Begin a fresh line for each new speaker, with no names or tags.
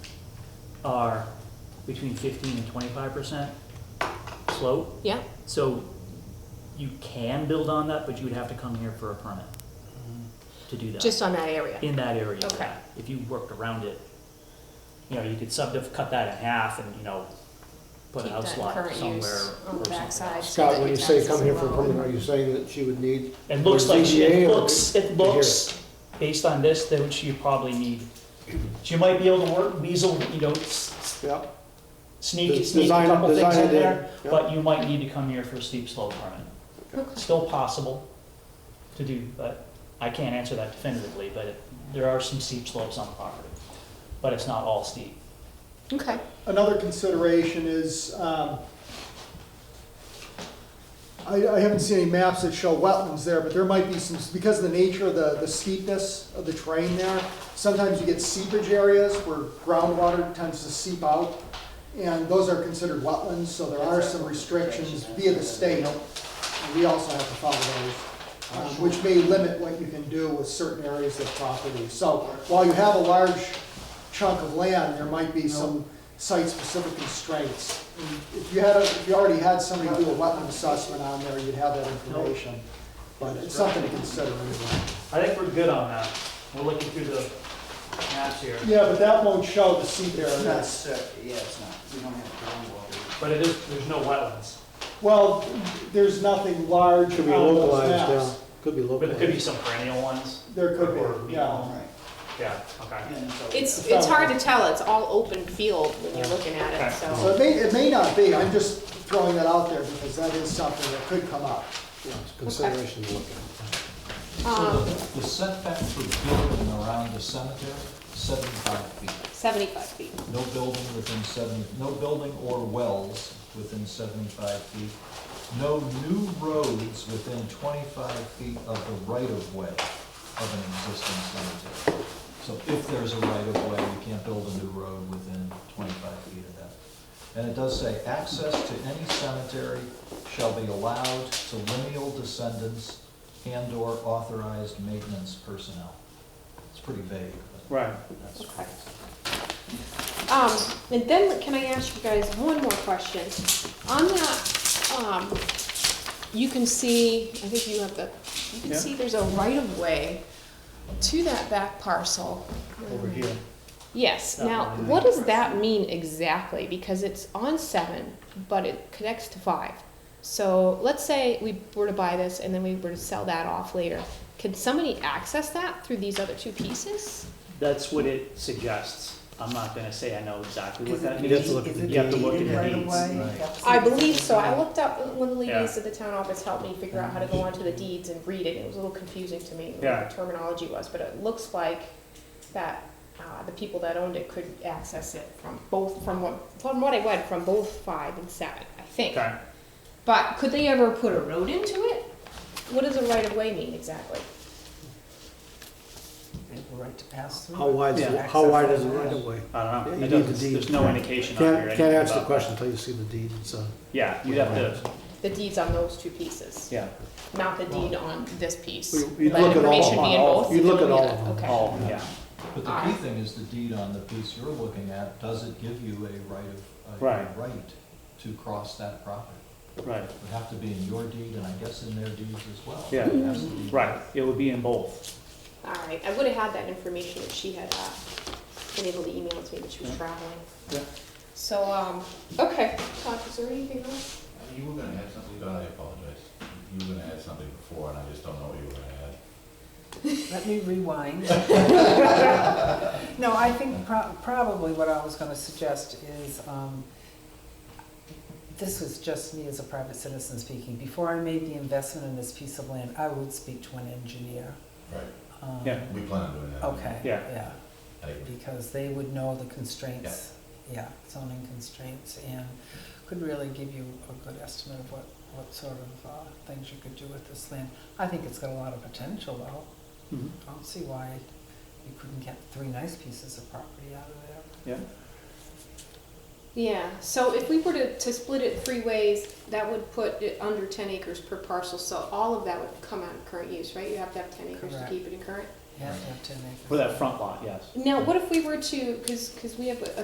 are between fifteen and twenty-five percent slope.
Yeah,
So you can build on that, but you would have to come here for a permit to do that.
just on that area.
In that area.
Okay.
yeah. If you worked around it, you know, you could sub, cut that in half and, you know, put a
Keep
house
that
lot
current
somewhere.
use On
or
the
something.
backside. so
Scott,
that
when you
your
say
taxes
come here for a
are
permit,
low.
are you saying that she would need,
It looks like, she- it
ZBA or-
looks, it looks, based on this, that she probably need, she might be able to work, weasel, you know, s- s-
yeah,
sneak,
Des-
sneak a
design-
couple things
design
in
it
there,
in, yeah.
but you might need to come here for a steep slope permit.
Okay.
Still possible to do, but I can't answer that definitively, but it- there are some steep slopes on the property. But it's not all steep.
Okay,
Another consideration is, um, I, I haven't seen any maps that show wetlands there, but there might be some, because of the nature of the, the steepness of the terrain there, sometimes you get seepage areas where groundwater tends to seep out, and those are considered wetlands, so there are some restrictions via the state. and We also have to follow those, um, which may limit what you can do with certain areas of property. So while you have a large chunk of land, there might be some site-specific constraints. And If you had, a- if you already had somebody do a wetland assessment on there, you'd have that information. But it's something to consider anyway.
I think we're good on that. We're looking through the maps here.
Yeah, but that won't show the seep
It's
area.
not, set- uh, yeah, it's not, we don't have groundwater.
But it is, there's no wetlands,
Well, there's nothing large
could be
on those
localized, yeah,
maps.
could be
but there could be
localized.
some perennial ones.
There could
Or-
be, yeah.
All right.
Yeah, okay.
And so-
it's, it's hard to tell, it's all open field when you're looking at it,
Okay.
so.
So it may, it may not be, I'm just throwing that out there because that is something that could come up.
Yeah, it's a Consideration to look at.
So
Um,
the the setback for building around the cemetery, seventy-five feet.
seventy-five feet.
No building within seven, no building or wells within seventy-five feet. No new roads within twenty-five feet of the right-of-way of an existing cemetery. So if there's a right-of-way, you can't build a new road within twenty-five feet of that. And it does say, access to any cemetery shall be allowed to lineal descendants and/or authorized maintenance personnel. It's pretty vague, but
Right.
that's.
Okay. Um, and then can I ask you guys one more question? On that, um, you can see, I think you have the, you can
Yeah.
see there's a right of way to that back parcel.
Over here.
Yes,
That
now,
line.
what does that mean exactly? Because it's on seven, but it connects to five. So let's say we were to buy this and then we were to sell that off later. Can somebody access that through these other two pieces?
That's what it suggests. I'm not gonna say I know exactly what
Is
that
it
means.
deed- is it
You have to look at
deeded
the
right
deeds.
away?
Right.
That's-
I believe so. I looked up, one of the
Yeah.
ladies at the town office helped me figure out how to go onto the deeds and read it. It was a little confusing to me what
Yeah.
the terminology was, but it looks like that, uh, the people that owned it could access it from both, from what, from what I read, from both five and seven, I think.
Okay.
But could they ever put a road into it? What does a right of way mean exactly?
The right to pass through.
How wide, is
Yeah.
it- how wide is it right away?
I
Yeah,
don't know.
you
It
need the
doesn't-
deed.
there's no indication on here.
Can't, can't
anything
answer the
about-
question until you see the deed and so.
Yeah, you'd have to,
The deeds on those two pieces,
yeah,
not the deed on this piece.
Well, you'd
That
look at all-
information be in
all-
both?
you'd look at
It'll be
all
that-
of them,
okay.
all, yeah.
But the key thing is the deed on the piece you're looking at, does it give you a right of, a
Right.
right to cross that property?
Right,
It would have to be in your deed and I guess in their deeds as well.
Yeah.
It has to be-
right. It would be in both.
All right, I would have had that information if she had uh, been able to email it to me, but she was
Yeah.
traveling.
Yeah.
So, um, okay, Todd, is there anything else?
You were gonna add something, Don, I apologize. You were gonna add something before, and I just don't know what you were gonna add.
Let me rewind. No, I think pro- probably what I was gonna suggest is, um, this was just me as a private citizen speaking. Before I made the investment in this piece of land, I would speak to an engineer.
Right.
um,
Yeah.
We plan on doing that.
Okay.
Yeah.
Yeah.
I agree.
because they would know the constraints, yeah, zoning constraints, and could really give you a good estimate of what, what sort of uh, things you could do with this land. I think it's got a lot of potential, though.
Mhm.
I don't see why you couldn't get three nice pieces of property out of there.
Yeah.
Yeah, so if we were to, to split it three ways, that would put it under ten acres per parcel, so all of that would come out of current use, right? You have to have ten acres to
Correct.
keep it in current?
You have to have ten acres.
For that front lot, yes.
Now, what if we were to, because, because we have a